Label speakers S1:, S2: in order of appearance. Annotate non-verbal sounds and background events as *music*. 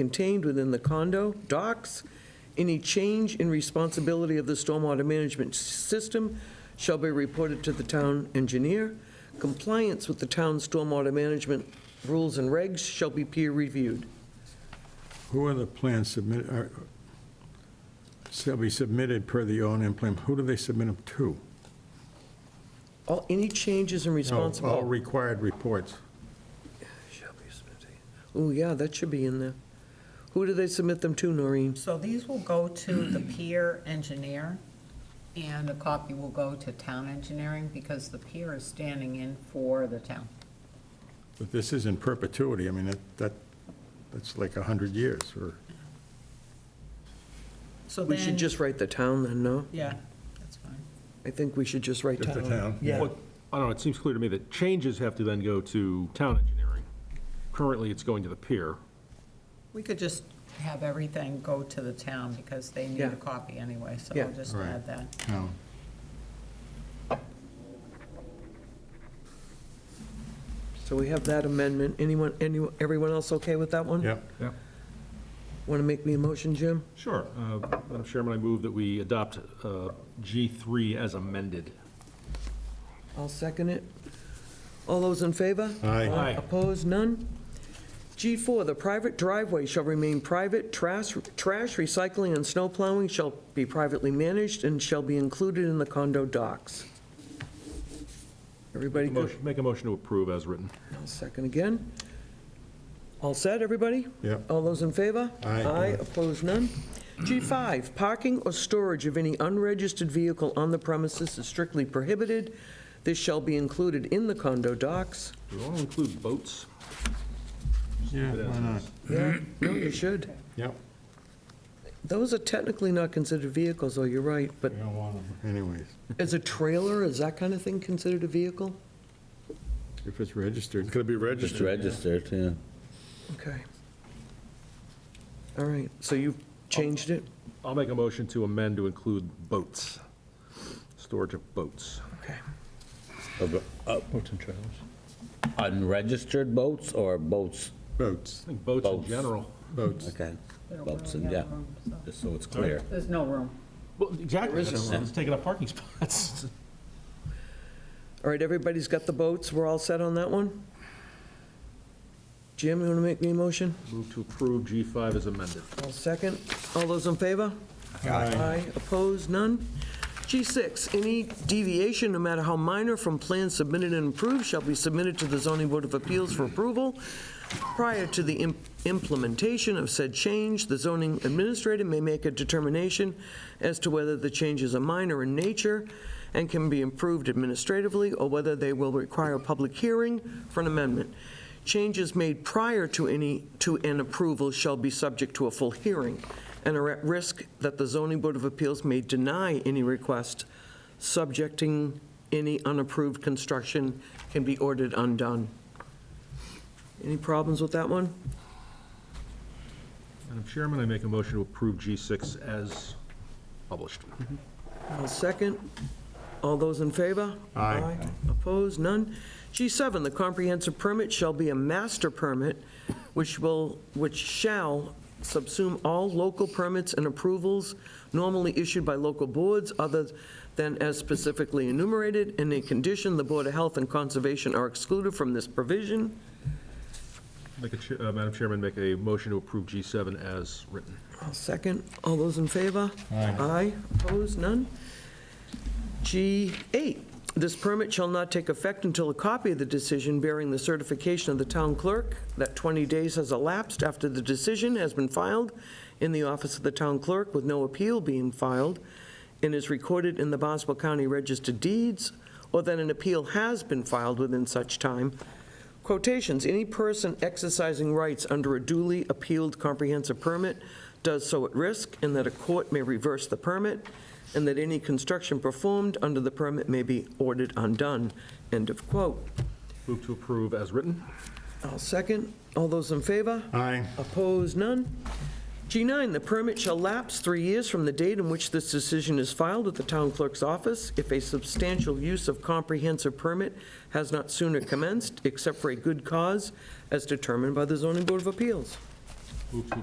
S1: contained within the condo docks. Any change in responsibility of the stormwater management system shall be reported to the town engineer. Compliance with the town's stormwater management rules and regs shall be peer-reviewed.
S2: Who are the plans submitted, are- shall be submitted per the O and M plan? Who do they submit them to?
S1: All, any changes in
S2: Oh, All
S1: responsibility.
S2: required reports.
S1: shall be submitted. Oh, yeah, that should be in there. Who do they submit them to, Noreen?
S3: So these will go
S1: *clears throat*
S3: to the peer engineer, and a copy will go to town engineering, because the peer is standing in for the town.
S2: But this is in perpetuity, I mean, that- that, that's like 100 years, or,
S3: So
S1: We
S3: then-
S1: should just write the town then, no?
S3: Yeah, that's fine.
S1: I think we should just write
S2: Just the town,
S1: Yeah.
S4: Well, I don't know, it seems clear to me that changes have to then go to town engineering. Currently, it's going to the pier.
S3: We could just have everything go to the town, because they need
S1: Yeah.
S3: a copy anyway, so
S1: Yeah.
S3: we'll just
S2: Right.
S3: add that.
S2: no.
S1: So we have that amendment. Anyone, anyone, everyone else okay with that one?
S2: Yep,
S4: Yeah.
S1: Want to make me a motion, Jim?
S4: Sure. Uh, Madam Chairman, I move that we adopt uh, G3 as amended.
S1: I'll second it. All those in favor?
S2: Aye. Aye.
S1: Opposed, none? G4, the private driveway shall remain private, trash, trash recycling, and snow plowing shall be privately managed and shall be included in the condo docks. Everybody good?
S4: Motion- Make a motion to approve as written.
S1: I'll second again. All set, everybody?
S2: Yep.
S1: All those in favor?
S2: Aye.
S1: Aye, opposed, none. G5, parking or storage of any unregistered vehicle on the premises is strictly prohibited. This shall be included in the condo docks.
S4: Do we want to include boats?
S2: yeah, why not?
S1: Yeah, no, you should.
S2: Yep,
S1: Those are technically not considered vehicles, though, you're right, but
S2: we don't want them anyways,
S1: as a trailer, is that kind of thing considered a vehicle?
S2: if it's registered.
S5: Could it be
S6: Just
S5: registered?
S6: registered, yeah.
S1: Okay. All right, so you've changed it?
S4: I'll make a motion to amend to include boats, storage of boats.
S1: Okay.
S6: Boats and trailers. uh, Unregistered boats or boats,
S2: Boats,
S4: I think boats in
S6: Boats.
S4: general.
S2: boats.
S6: okay,
S3: They don't
S6: boats,
S3: really
S6: and yeah,
S3: have room, so-
S6: just so it's clear.
S3: There's no room.
S4: Well, exactly,
S1: There is
S6: no-
S4: it's taking up parking spots.
S1: All right, everybody's got the boats, we're all set on that one? Jim, you want to make me a motion?
S4: Move to approve G5 as amended.
S1: I'll second. All those in favor? Aye. Opposed, none? G6, any deviation, no matter how minor, from plans submitted and approved shall be submitted to the zoning board of appeals for approval. Prior to the im- implementation of said change, the zoning administrator may make a determination as to whether the changes are minor in nature and can be improved administratively, or whether they will require a public hearing for an amendment. Changes made prior to any, to an approval shall be subject to a full hearing and are at risk that the zoning board of appeals may deny any request, subjecting any unapproved construction can be ordered undone. Any problems with that one?
S4: Madam Chairman, I make a motion to approve G6 as published.
S1: I'll second. All those in favor?
S2: Aye.
S1: Opposed? None? G7, the comprehensive permit shall be a master permit, which will, which shall subsume all local permits and approvals normally issued by local boards other than as specifically enumerated. In a condition, the Board of Health and Conservation are excluded from this provision.
S4: Make a, cha- uh, Madam Chairman, make a motion to approve G7 as written.
S1: I'll second. All those in favor? Aye. Aye, opposed, none? G8, this permit shall not take effect until a copy of the decision bearing the certification of the town clerk that 20 days has elapsed after the decision has been filed in the office of the town clerk with no appeal being filed and is recorded in the Boswell County Register Deeds, or that an appeal has been filed within such time, Quotations, any person exercising rights under a duly appealed comprehensive permit does so at risk, and that a court may reverse the permit, and that any construction performed under the permit may be ordered undone. End of quote.
S4: Move to approve as written.
S1: I'll second. All those in favor?
S2: Aye,
S1: Opposed, none. G9, the permit shall lapse three years from the date in which this decision is filed at the town clerk's office if a substantial use of comprehensive permit has not sooner commenced, except for a good cause as determined by the zoning board of appeals.
S4: Move to